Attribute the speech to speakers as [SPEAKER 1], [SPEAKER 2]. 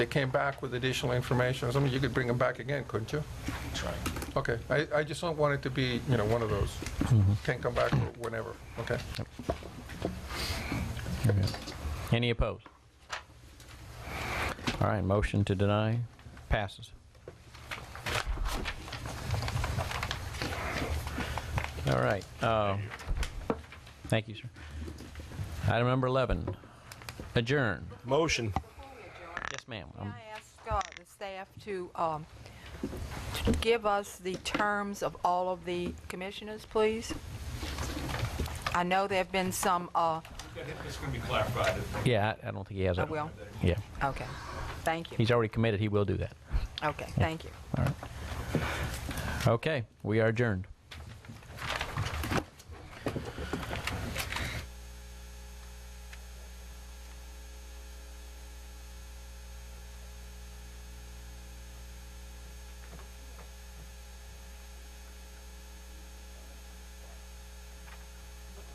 [SPEAKER 1] They came back with additional information, or something, you could bring them back again, couldn't you?
[SPEAKER 2] Try.
[SPEAKER 1] Okay, I, I just don't want it to be, you know, one of those, can come back whenever, okay?
[SPEAKER 3] Any opposed? All right, motion to deny passes. All right. uh, Thank you, sir. Item number 11, adjourn.
[SPEAKER 2] Motion.
[SPEAKER 3] Yes, ma'am.
[SPEAKER 4] Can
[SPEAKER 3] Um,
[SPEAKER 4] I ask uh, the staff to um, to give us the terms of all of the commissioners, please? I know there have been some, uh,
[SPEAKER 5] It's going to be clarified.
[SPEAKER 3] Yeah, I I don't think he has
[SPEAKER 4] I
[SPEAKER 3] that.
[SPEAKER 4] will,
[SPEAKER 3] Yeah,
[SPEAKER 4] okay, thank you,
[SPEAKER 3] he's already committed, he will do that.
[SPEAKER 4] okay, thank you.
[SPEAKER 3] Okay, we are adjourned.